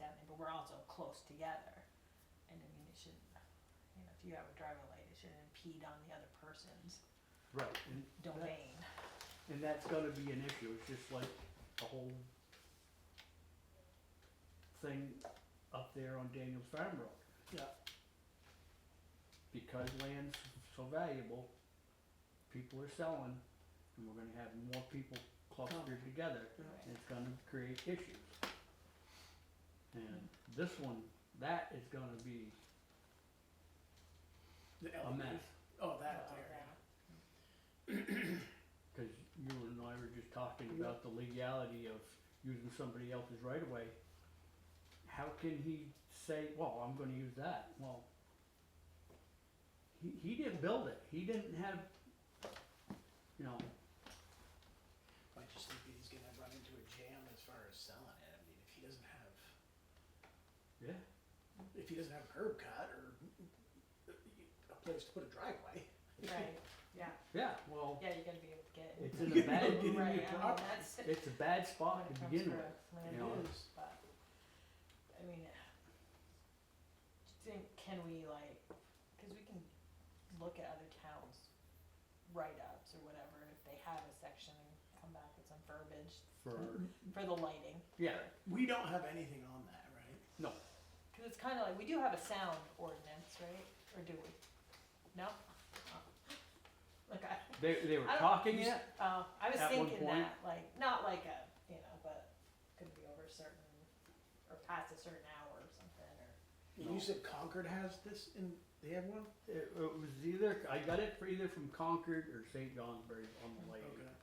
but we're also close together. And I mean, it shouldn't, you know, if you have a driving light, it shouldn't impede on the other person's Right, and, domain. and that's gonna be an issue, it's just like the whole thing up there on Daniel's Farm Road. Yeah. Because land's so valuable, people are selling, and we're gonna have more people clustered together, Right. and it's gonna create issues. And this one, that is gonna be The a element. mess. Oh, that Uh, there. yeah. Cause you and I were just talking about the legality of using somebody else's right of way. How can he say, well, I'm gonna use that, well. He, he didn't build it, he didn't have, you know, I just think he's gonna run into a jam as far as selling it. I mean, if he doesn't have, yeah, if he doesn't have a curb cut or a place to put a driveway. Right, yeah, yeah, well, yeah, you're gonna be able to get. it's in a Get bad, it in Right, your I mean, property. that's- it's a bad spot to begin When with. you it comes to know. land use, but, I mean, do you think, can we like, cause we can look at other towns' write-ups or whatever, and if they have a section, come back with some verbiage For, Mm-hmm. for the lighting. yeah, We don't have anything on that, right? no, Cause it's kinda like, we do have a sound ordinance, right, or do we? No? Oh. Like I, they, they were I don't- talking it, oh, I was At one thinking point- that, like, not like a, you know, but could be over a certain, or past a certain hour or something, or. And You said Concord has this in, they have one? it, it was either, I got it for either from Concord or St. Johnsbury on the lake. Okay.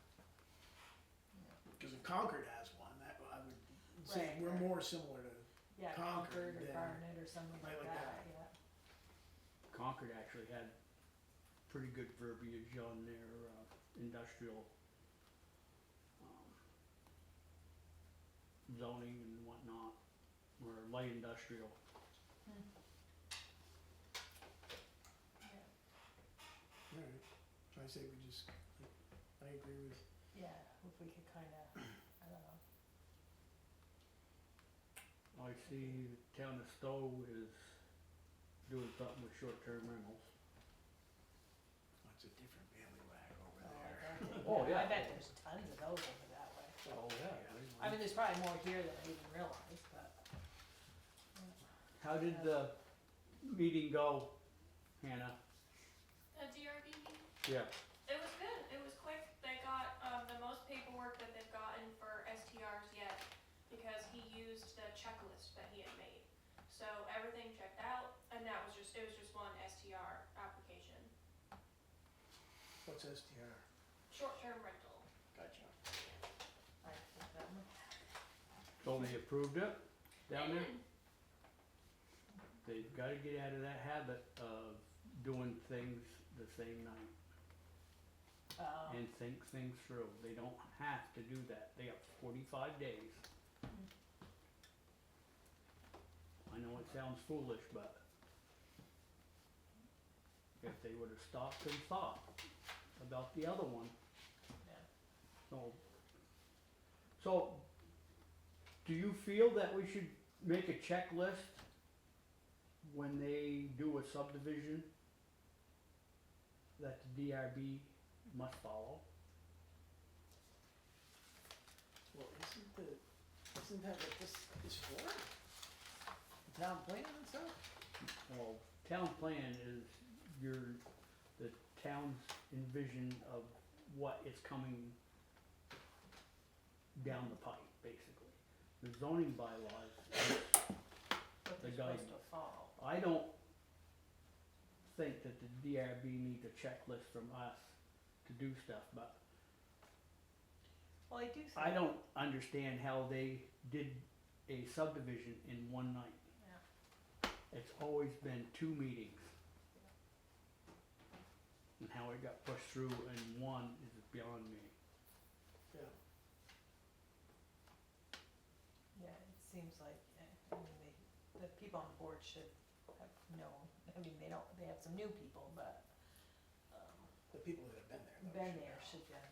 Cause if Concord has one, that, I would say Right, we're right. more similar to, Yeah, Concord Concord, or yeah. Barnet or something Right, like like that, that. yeah. Concord actually had pretty good verbiage on their uh, industrial um, zoning and whatnot, or light industrial. alright. I say we just, I agree with Yeah, if we could kinda, I don't know, I see the town of Stowe is doing something with short-term rentals. That's a different ballywag over oh, I there. bet they- Oh, I yeah. bet there's tons of those over that way. Oh, I mean, there's probably more here than I even realized, but. How did the meeting go, Hannah? A DRB meeting? Yeah. It was good. It was quick. They got um, the most paperwork that they've gotten for STRs yet because he used the checklist that he had made. So everything checked out, and that was just it was just one STR application, What's STR? short-term rental. Gotcha. I think that one- So they approved it down there? They did. They've gotta get out of that habit of doing things the same night. Oh, and think things through. They don't have to do that. They have forty-five days. I know it sounds foolish, but if they would've stopped and thought about the other one, yeah. so. So, do you feel that we should make a checklist when they do a subdivision? That the DRB must follow? Well, isn't the, isn't that what this is for? The town plan and stuff? Well, town plan is your, the town's envision of what is coming down the pipe, basically. The zoning bylaws, What they're The guy- supposed to follow. I don't think that the DRB needs a checklist from us to do stuff, but Well, I do think. I don't understand how they did a subdivision in one night. Yeah. It's always been two meetings. And how it got pushed through in one is beyond me. Yeah. Yeah, it seems like, uh, I mean, they, the people on the board should have known, I mean, they don't, they have some new people, but, um, The people that have been been there. though, should there know. should, yeah,